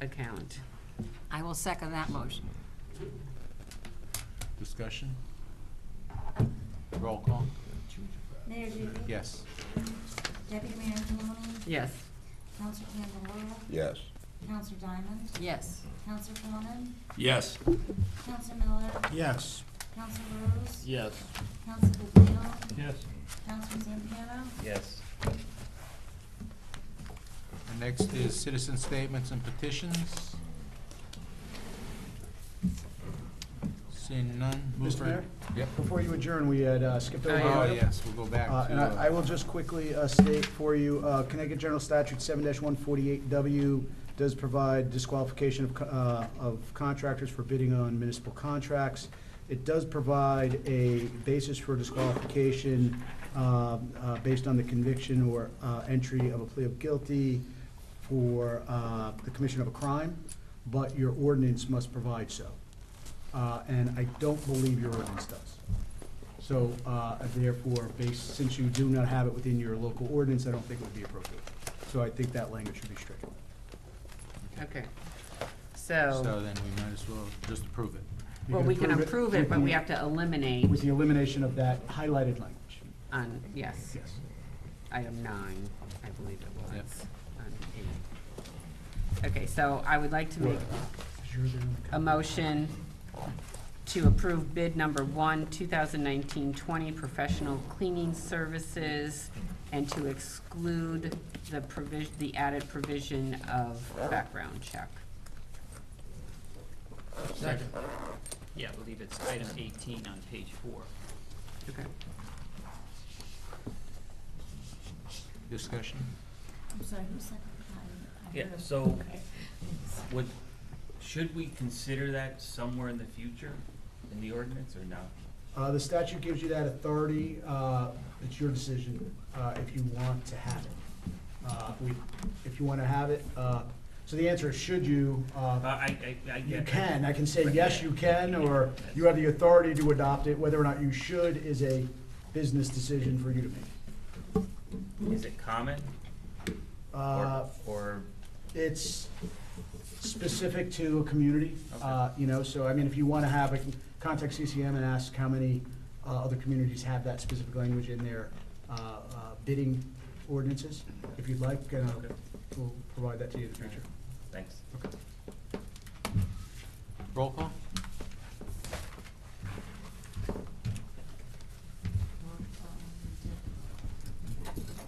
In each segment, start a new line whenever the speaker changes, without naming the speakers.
account.
I will second that motion.
Discussion? Roll call?
Mayor Duty?
Yes.
Deputy Mayor Caneely?
Yes,
Counselor Candelara?
Yes.
Counselor Diamond?
Yes.
Counselor Fawnin?
Yes.
Counselor Miller?
Yes.
Counselor Rose?
Yes.
Counselor DeVito?
Yes.
Counselor Zampiano?
Yes.
And Next is citizen statements and petitions. Seeing none? move
Mr.
for-
Mayor?
Yep.
Before you adjourn, we had uh, skipped over.
Oh,
an item.
yes, we'll go back to.
Uh, And I I will just quickly uh, state for you, uh, Connecticut General Statute 7-148W does provide disqualification of co- uh, of contractors for bidding on municipal contracts. It does provide a basis for disqualification um, uh, based on the conviction or uh, entry of a plea of guilty for uh, the commission of a crime, but your ordinance must provide so. Uh, And I don't believe your ordinance does. So uh, therefore, based, since you do not have it within your local ordinance, I don't think it would be appropriate. So I think that language should be stricken.
okay.
So
um,
So,
then we might as well just approve it.
You
well, we can approve it, but we have to eliminate
With the elimination of that highlighted language.
on, yes,
Yes.
item nine, I believe it was.
Yep.
on eight. Okay, so I would like to make a motion to approve bid number one, 2019-20, professional cleaning services, and to exclude the provision, the added provision of background check.
Second.
Yeah, I believe it's item eighteen on page four.
Okay.
Discussion?
I'm sorry, who seconded that? I- I
Yeah,
heard-
so-
Okay.
Would, should we consider that somewhere in the future in the ordinance or no?
Uh, The statute gives you that authority. uh, It's your decision uh, if you want to have it. Uh, we- If you want to have it, uh, so the answer is should you. uh,
Uh, I, I, I get.
You can, I can say, yes, you can, or you have the authority to adopt it, whether or not you should is a business decision for you to make.
Is it common
Uh,
or, or,
It's specific to a community, uh, you know, so, I mean, if you want to have, it, contact CCM and ask how many uh, other communities have that specific language in their uh, uh, bidding ordinances, if you'd like, and I'll-
Okay.
we'll provide that to you in the future.
thanks.
Roll call?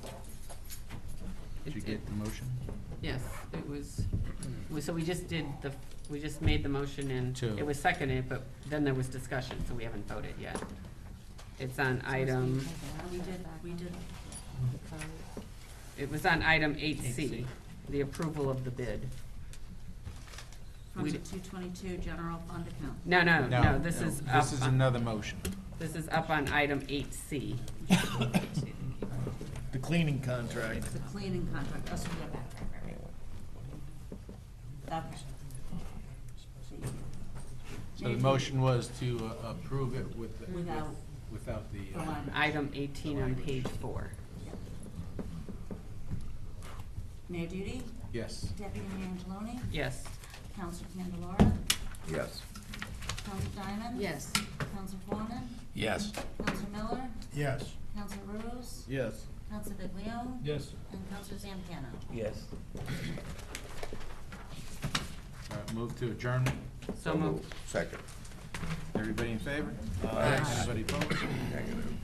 Did you
It's- it-
get the motion?
Yes, it was, we- so we just did the, we just made the motion and
To-
it was seconded, but then there was discussion, so we haven't voted yet. It's on item,
We did, we did.
it was on item eight C,
8C.
the approval of the bid.
From
We
the
d-
two twenty-two general fund account.
No, no, no, this is up,
This is
on-
another motion.
this is up on item eight C.
The cleaning contract.
The cleaning contract, Oh, us to get back, right, right, right. Okay.
So the motion was to uh, approve it with, the-
Without
without the,
the
uh,
line.
Item eighteen on page four.
Mayor Duty?
yes.
Deputy Mayor Angeloni?
Yes,
Counselor Candelara?
Yes.
Counselor Diamond?
Yes.
Counselor Fawnin?
Yes.
Counselor Miller?
Yes.
Counselor Rose?
Yes.
Counselor Viglione?
Yes.
And Counselor Zampiano?
Yes.
All right, Move to adjournment.
so moved.
Second.
Everybody in favor?
Aye.
Anybody opposed?
Negative.